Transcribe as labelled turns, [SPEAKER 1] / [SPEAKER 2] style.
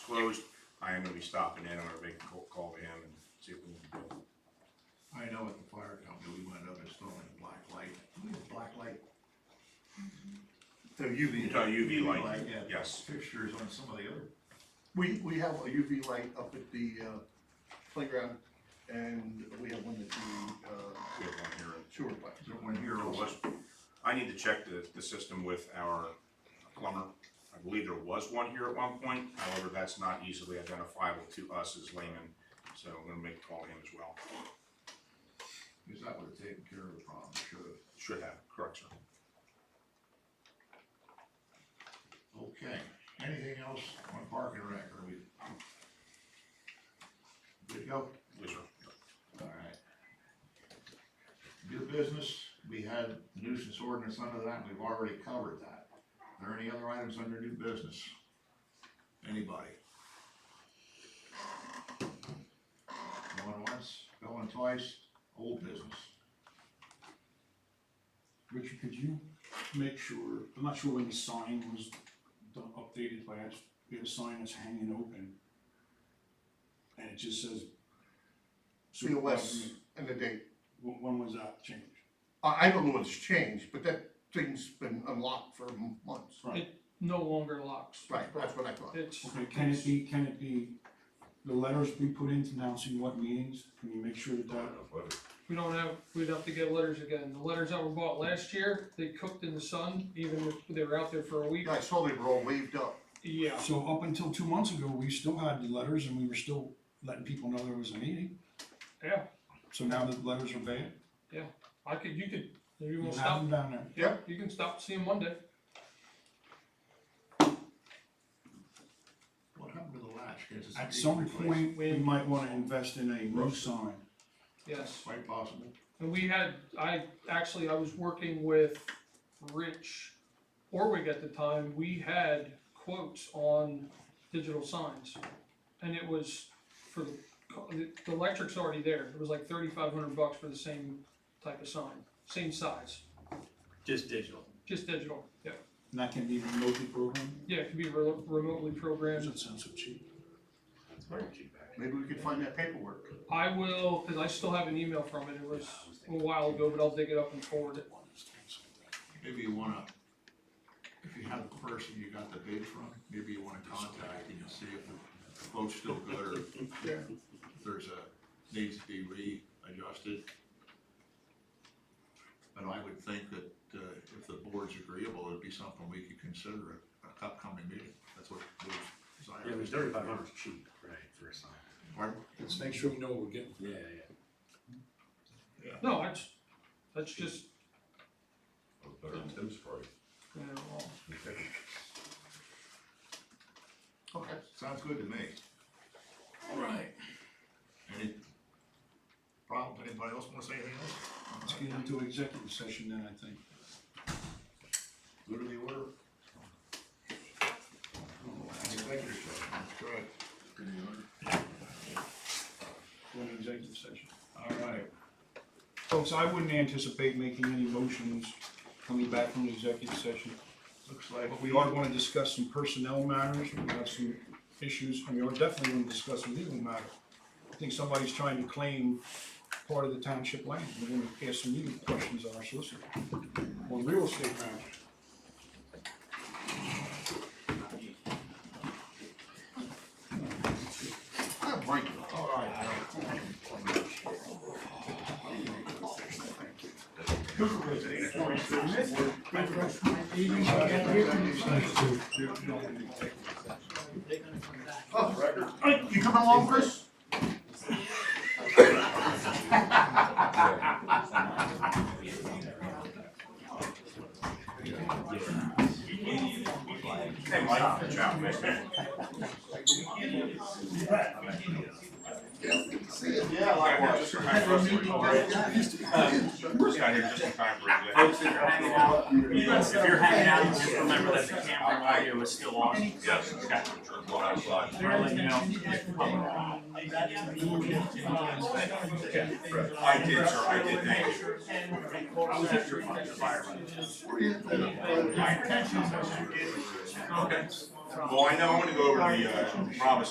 [SPEAKER 1] closed, I am gonna be stopping in, I'm gonna make a call- call to him and see what we can do.
[SPEAKER 2] I know at the fire company, we went up installing a black light, We had a Oh, black light. The UV.
[SPEAKER 1] Uh, UV light,
[SPEAKER 2] yeah.
[SPEAKER 1] yes.
[SPEAKER 2] Fixtures on some of the other,
[SPEAKER 3] We, we have a UV light up at the, uh, playground, and we have one at the, uh,
[SPEAKER 1] We have one here in
[SPEAKER 3] sewer plant.
[SPEAKER 2] there one here
[SPEAKER 1] There
[SPEAKER 2] also.
[SPEAKER 1] was, I need to check the, the system with our plumber. I believe there was one here at one point, however, that's not easily identifiable to us as laymen, so I'm gonna make a call to him as well.
[SPEAKER 2] Cause that would've taken care of the problem, should've.
[SPEAKER 1] Should have, correct, sir.
[SPEAKER 2] Okay, anything else on parking wreck, are we? Good to go?
[SPEAKER 1] Yes, sir.
[SPEAKER 2] Alright. New business, we had nuisance ordinance under that, and we've already covered that. Are there any other items under new business? Anybody? Going once, going twice, old business.
[SPEAKER 4] Richard, could you make sure, I'm not sure when the sign was done- updated, but I just, we had a sign that's hanging open. And it just says.
[SPEAKER 3] COS
[SPEAKER 4] supervisor-
[SPEAKER 3] and the date.
[SPEAKER 4] When, when was that changed?
[SPEAKER 3] I, I don't know what's changed, but that thing's been unlocked for months.
[SPEAKER 4] Right,
[SPEAKER 5] no longer locks.
[SPEAKER 3] Right, that's what I thought.
[SPEAKER 5] It's,
[SPEAKER 4] okay, can it be, can it be, the letters be put in announcing what meetings, can you make sure that that?
[SPEAKER 5] we don't have, we'd have to get letters again. The letters that were bought last year, they cooked in the sun, even if they were out there for a week.
[SPEAKER 3] Yeah, I saw they were all waved up.
[SPEAKER 5] Yeah,
[SPEAKER 4] So up until two months ago, we still had the letters and we were still letting people know there was a meeting,
[SPEAKER 5] yeah,
[SPEAKER 4] so now the letters are banned,
[SPEAKER 5] I could, you could, if you
[SPEAKER 4] you
[SPEAKER 5] wanna
[SPEAKER 4] have
[SPEAKER 5] stop,
[SPEAKER 4] them down there.
[SPEAKER 5] yeah, you can stop seeing Monday.
[SPEAKER 2] What happened to the latch? 'Cause it's
[SPEAKER 4] At some
[SPEAKER 2] replaced.
[SPEAKER 4] point, we might wanna invest in a new sign.
[SPEAKER 5] Yes,
[SPEAKER 2] Quite possible.
[SPEAKER 5] and we had, I, actually, I was working with Rich Orwig at the time. We had quotes on digital signs. And it was for the, co- the the electric's already there. It was like thirty-five hundred bucks for the same type of sign, same size.
[SPEAKER 6] Just digital.
[SPEAKER 5] Just digital, yeah.
[SPEAKER 4] And that can be remotely programmed?
[SPEAKER 5] Yeah, it can be re- remotely programmed.
[SPEAKER 4] Doesn't sound so cheap.
[SPEAKER 3] Maybe we could find that paperwork.
[SPEAKER 5] I will, because I still have an email from it, it was a while ago, but I'll dig it up and forward it.
[SPEAKER 2] Maybe you wanna, if you have the person you got the bid from, maybe you wanna contact and see if the quote's still good or
[SPEAKER 3] Yeah.
[SPEAKER 2] if there's a, needs to be readjusted. But I would think that, uh, if the board's agreeable, it'd be something we could consider at an upcoming meeting, that's what the board's desire.
[SPEAKER 6] Yeah, it was thirty-five hundred cheap. Right, for a sign.
[SPEAKER 2] Pardon?
[SPEAKER 4] Let's make sure we know what we're getting.
[SPEAKER 6] Yeah, yeah.
[SPEAKER 5] No, that's, that's just,
[SPEAKER 7] Better than Tim's price.
[SPEAKER 5] you know, well,
[SPEAKER 3] Okay.
[SPEAKER 2] Sounds good to me. All right. Any problem, anybody else wanna say anything
[SPEAKER 4] Let's
[SPEAKER 2] else?
[SPEAKER 4] get into executive session then, I think.
[SPEAKER 2] Go to the order. Oh, Executive session, good.
[SPEAKER 4] Go into executive session.
[SPEAKER 2] All right,
[SPEAKER 4] Folks, I wouldn't anticipate making any motions coming back from the executive session.
[SPEAKER 2] looks like.
[SPEAKER 4] But we are gonna discuss some personnel matters, we have some issues, and we are definitely gonna discuss a legal matter. I think somebody's trying to claim part of the township land, we're gonna ask some legal questions on our solicitor. On real estate matters.
[SPEAKER 3] I'm breaking.
[SPEAKER 2] All right,
[SPEAKER 3] Hey, You coming along, Chris?
[SPEAKER 1] Hey, Mike. Ciao, man.
[SPEAKER 3] Yeah,
[SPEAKER 1] I got here just in time for us to record. Bruce got here Um, just in time for
[SPEAKER 6] Folks
[SPEAKER 1] it.
[SPEAKER 6] that are hanging out, if you're hanging out, just remember that the camera audio is still on.
[SPEAKER 7] Yes, it's got to turn one outside.
[SPEAKER 6] We're letting you know.
[SPEAKER 1] I did, sir, I did, thank you.
[SPEAKER 6] I was after your fire.
[SPEAKER 1] My intentions are- Okay. Well, I know, I'm gonna go over the, uh, promise